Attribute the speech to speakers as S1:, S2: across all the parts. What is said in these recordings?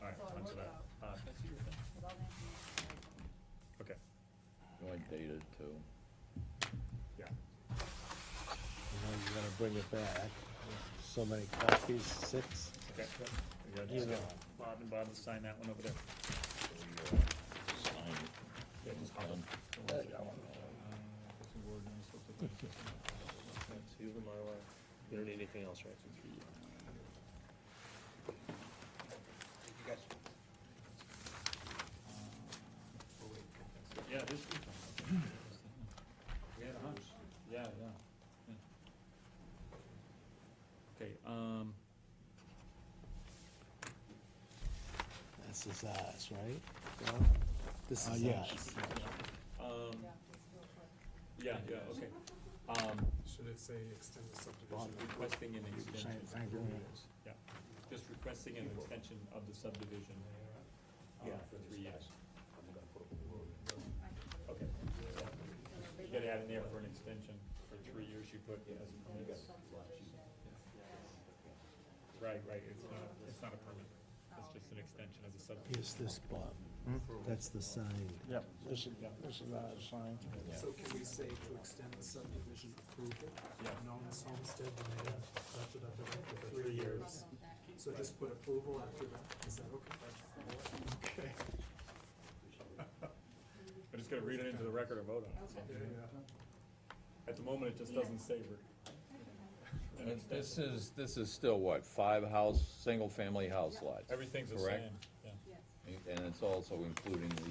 S1: Uh,
S2: of dated too.
S1: Yeah.
S3: You know, you're gonna bring it back. So many copies, six?
S1: Okay. You gotta
S3: You
S1: just get
S3: know.
S1: Bob and Bob to sign that one over there.
S2: Sign it.
S1: Yeah, just hop
S2: Done.
S1: the ones that got one.
S4: Seal the Mylar. You don't need anything else, right?
S1: Yeah, this is. We had a hunch. uh-huh. Yeah, yeah, yeah. Okay, um,
S3: This is ours, right? Yeah? This
S5: Uh,
S3: is
S5: yes.
S3: ours.
S1: um, yeah, yeah, okay. Um,
S6: Should it say extend the
S1: Bob
S6: subdivision?
S1: requesting an extension,
S3: Thank- thank you.
S1: just requesting an extension of the subdivision, uh, for three years. Okay. You gotta add in there for an extension, for three years you put as a permit. Right, right, it's not, it's not a permit, it's just an extension of the subdivision.
S3: Here's this, Bob.
S1: Hmm?
S3: That's the sign.
S5: Yep, this is, this is our sign.
S6: So can we say to extend the subdivision approval?
S1: Yeah.
S6: Nolan's Homestead, Lane, da, da, da, da, da, for three years. So just put approval after that, is that okay? Okay.
S1: I'm just gonna read it into the record and vote on it.
S6: Yeah, yeah.
S1: At the moment, it just doesn't savor. An
S2: And
S1: extension.
S2: This is, this is still what, five house, single-family house lots?
S1: Everything's the
S2: Correct.
S1: same, yeah.
S2: And it's also including the,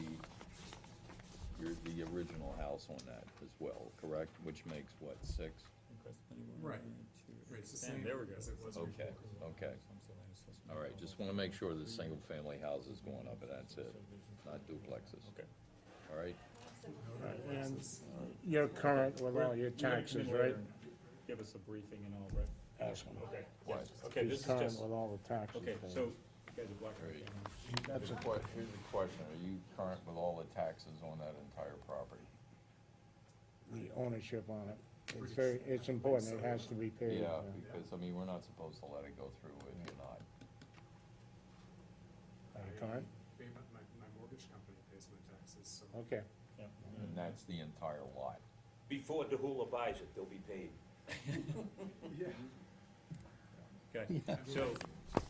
S2: your, the original house on that as well, correct? Which makes what, six?
S1: Request planning board
S6: Right.
S1: to
S6: Right, it's the
S1: extend-
S6: same
S1: There we go.
S6: as it was
S2: Okay, okay. All right, just wanna make sure the single-family house is going up and that's it, not duplexes,
S1: Okay.
S2: all right?
S5: And you're current with all your
S1: You're gonna come in
S5: taxes,
S1: later
S5: right?
S1: and Give us a briefing and all, right?
S5: Ask him.
S1: Okay.
S2: What?
S1: Okay, this
S5: He's
S1: is
S5: current
S1: just,
S5: with all the taxes.
S1: okay,
S5: then.
S1: so, you guys are blocking
S2: Right.
S1: the camera.
S2: That's a que, here's a question, are you current with all the taxes on that entire property?
S5: The ownership on it, it's very, it's important, it has to be paid.
S2: Yeah,
S5: uh,
S2: because, I mean, we're not supposed to let it go through if you're not.
S5: Are you current?
S6: They- My, my my mortgage company pays my taxes, so.
S5: Okay.
S1: Yeah.
S2: And that's the entire lot.
S7: Before DeHulla buys it, they'll be paid.
S6: Yeah.
S1: Okay, so,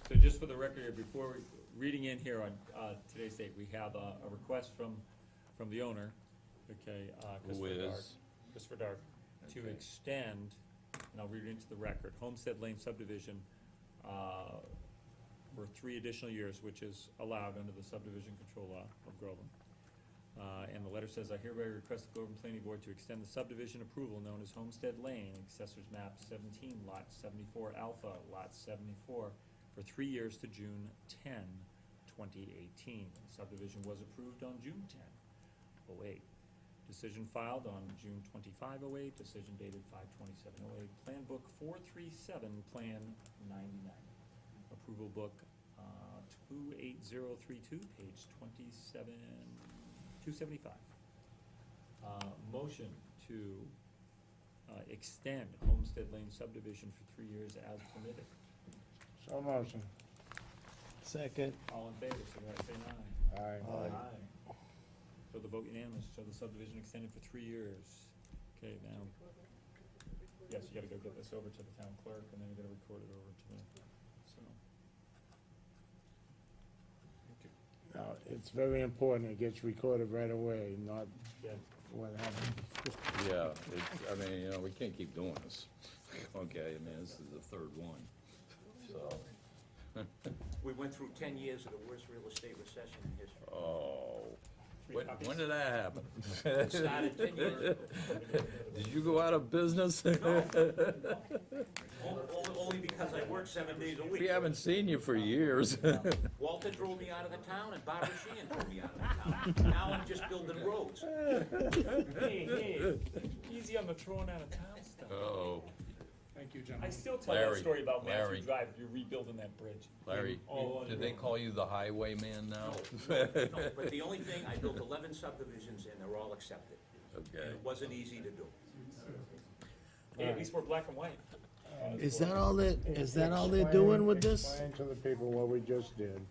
S1: so just for the record, here, before, we- reading in here on, uh, today's date, we have a, a request from, from the owner, okay, uh, Christopher Dark. Christopher Dark, to
S2: Okay.
S1: extend, and I'll read it into the record, Homestead Lane subdivision, uh, for three additional years, which is allowed under the subdivision control law of Groveland. Uh, and the letter says, I hereby request the Groveland Planning Board to extend the subdivision approval known as Homestead Lane, accessors map seventeen, lot seventy-four alpha, lot seventy-four, for three years to June 10, 2018. Subdivision was approved on June 10, 08. Decision filed on June 25, 08. decision dated 5/27/08. plan book four three seven, plan ninety-nine. Approval book, uh, two eight zero three two, page twenty-seven, two seventy-five. Uh, motion to, uh, extend Homestead Lane subdivision for three years as permitted.
S5: So motion.
S3: Second,
S1: All in favor, signify by saying aye.
S5: Aye.
S1: Aye. So the vote unanimous, so the subdivision extended for three years. Okay, now. Yes, you gotta go get this over to the town clerk, and then you gotta record it over to the, so.
S5: Now, Uh, it's very important, it gets recorded right away, not
S1: Yeah.
S5: what happened.
S2: Yeah, it's, I mean, you know, we can't keep doing this, okay, I mean, this is the third one, so,
S7: We went through ten years of the worst real estate recession in history.
S2: oh.
S1: Three
S2: When,
S1: copies?
S2: when did that happen?
S7: It started ten years ago.
S2: Did you go out of business?
S7: Only- only- Only because I worked seven days a week.
S2: We haven't seen you for years.
S7: Walter drove me out of the town and Barbara Sheehan drove me out of the town. Now I'm just building roads.
S1: Hey, hey, easy on the throwing out of town stuff.
S2: Oh,
S6: Thank you,
S1: I
S6: gentlemen.
S1: still tell that
S2: Larry,
S1: story about Matthew
S2: Larry.
S1: Drive, you're rebuilding that bridge.
S2: Larry,
S1: All on
S2: did
S1: your
S2: they
S1: own.
S2: call you the highwayman now?
S7: No, But the only thing, I built eleven subdivisions and they're all accepted.
S2: Okay,
S7: And it wasn't easy to do.
S1: Hey, at least we're black and white.
S3: is that all that, is that all they're doing with this?
S5: Explain to the people what we just did.